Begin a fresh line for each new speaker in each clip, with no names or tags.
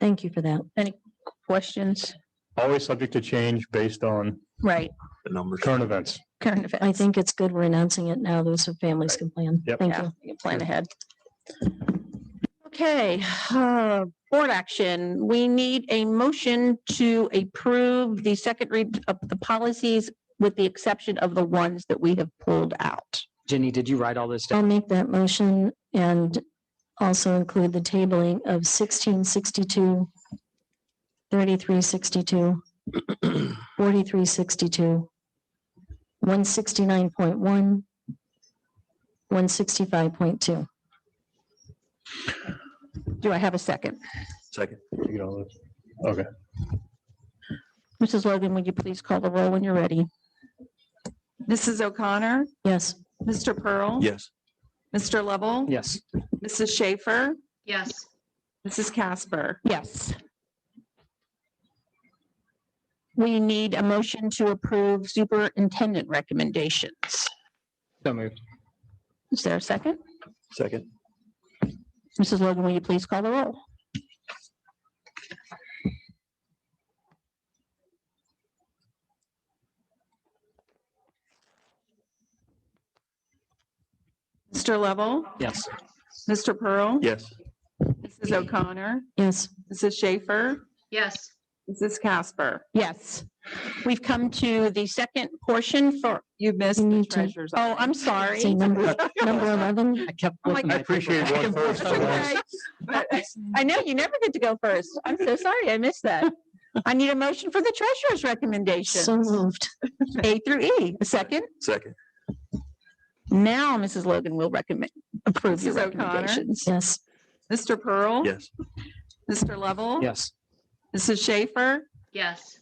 Thank you for that.
questions?
always subject to change based on
Right,
the numbers.
current events.
current
I
events.
think it's good we're announcing it now, those are families can plan.
Yep.
Thank
Yeah,
you.
we can plan ahead. Okay, uh, board action. We need a motion to approve the second read of the policies with the exception of the ones that we have pulled out.
Jenny, did you write all this down?
I'll make that motion and also include the tabling of sixteen sixty-two, thirty-three sixty-two, forty-three sixty-two, one sixty-nine point one, one sixty-five point two.
Do I have a second?
Second.
You know,
Mrs. Logan, would you please call the roll when you're ready?
Mrs. O'Connor,
Yes,
Mr. Pearl.
Yes.
Mr. Lovell,
Yes,
Mrs. Schaefer,
Yes,
Mrs. Casper.
Yes. We need a motion to approve superintendent recommendations.
so moved.
Is there a second?
Second.
Mrs. Logan, will you please call the roll?
Mr. Lovell,
Yes,
Mr. Pearl.
Yes.
Mrs. O'Connor,
yes.
Mrs. Schaefer,
yes.
Mrs. Casper.
Yes. We've come to the second portion for,
You've missed
You
the
need to-
treasurer's.
oh, I'm
Say
sorry.
number, number eleven,
I kept.
Oh my
flipping
I
my paper
appreciate
back
one
and
first.
forth.
Okay.
But
I know you never get to go first. I'm so sorry. I missed that. I need a motion for the treasurer's
so
recommendation,
moved.
A through E. A second?
Second.
Now, Mrs. Logan will recommend, approve your
Mrs. O'Connor?
recommendations.
Yes,
Mr. Pearl.
Yes.
Mr. Lovell.
Yes,
Mrs. Schaefer,
Yes.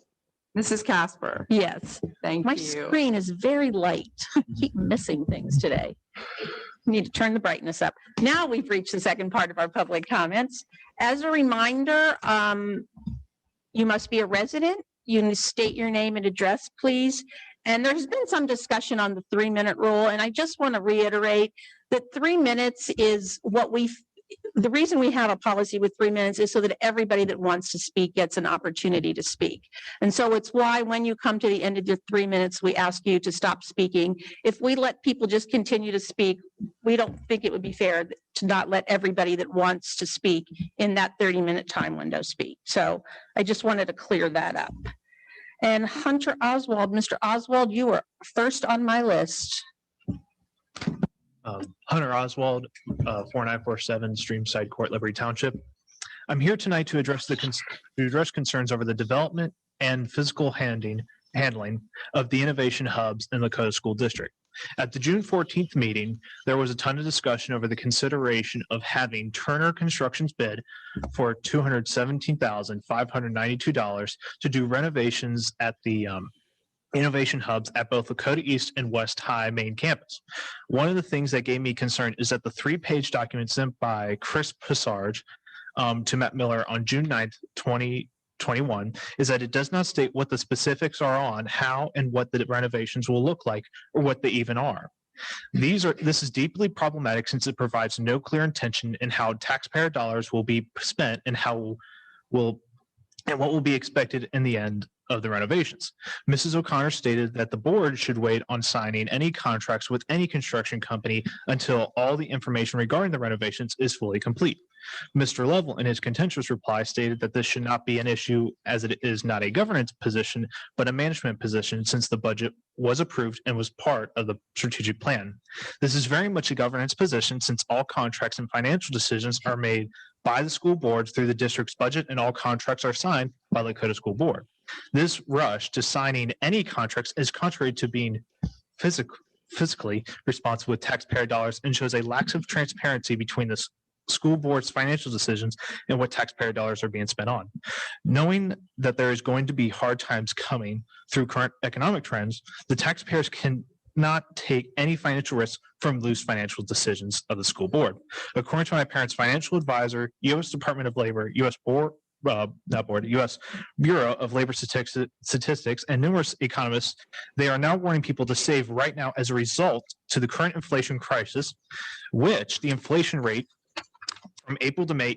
Mrs. Casper.
Yes,
Thank
my
you. Mm-hmm.
screen is very light. I Keep missing things today. Need to turn the brightness up. Now we've reached the second part of our public comments. As a reminder, um, you must be a resident. You need to state your name and address, please. And there's been some discussion on the three-minute rule, and I just want to reiterate that three minutes is what we, the reason we have a policy with three minutes is so that everybody that wants to speak gets an opportunity to speak. And so it's why when you come to the end of your three minutes, we ask you to stop speaking. If we let people just continue to speak, we don't think it would be fair to not let everybody that wants to speak in that thirty-minute time window speak. So I just wanted to clear that up. And Hunter Oswald, Mr. Oswald, you were first on my list.
Um, Hunter Oswald, uh, 4947 Streamside Court, Liberty Township. I'm here tonight to address the, cons- to address concerns over the development and physical handing, handling of the innovation hubs in Lakota School District. At the June 14th meeting, there was a ton of discussion over the consideration of having Turner Construction's bid for $217,592 to do renovations at the um, innovation hubs at both Lakota East and West High main campus. One of the things that gave me concern is that the three page document sent by Chris Passarge um, to Matt Miller on June 9th, 2021, is that it does not state what the specifics are on how and what the renovations will look like or what they even are. These are this is deeply problematic since it provides no clear intention in how taxpayer dollars will be spent and how will and what will be expected in the end of the renovations. Mrs. O'Connor stated that the board should wait on signing any contracts with any construction company until all the information regarding the renovations is fully complete. Mr. Lovell, in his contentious reply, stated that this should not be an issue as it is not a governance position, but a management position since the budget was approved and was part of the strategic plan. This is very much a governance position since all contracts and financial decisions are made by the school boards through the district's budget and all contracts are signed by the Lakota School Board. This rush to signing any contracts is contrary to being physic- physically responsible with taxpayer dollars and shows a lack of transparency between the s- school board's financial decisions and what taxpayer dollars are being spent on. Knowing that there is going to be hard times coming through current economic trends, the taxpayers can not take any financial risk from loose financial decisions of the school board. According to my parents' financial advisor, U.S. Department of Labor, U.S. Board, uh, not board, U.S. Bureau of Labor Statis- Statistics and numerous economists, they are now warning people to save right now as a result to the current inflation crisis, which the inflation rate from April to May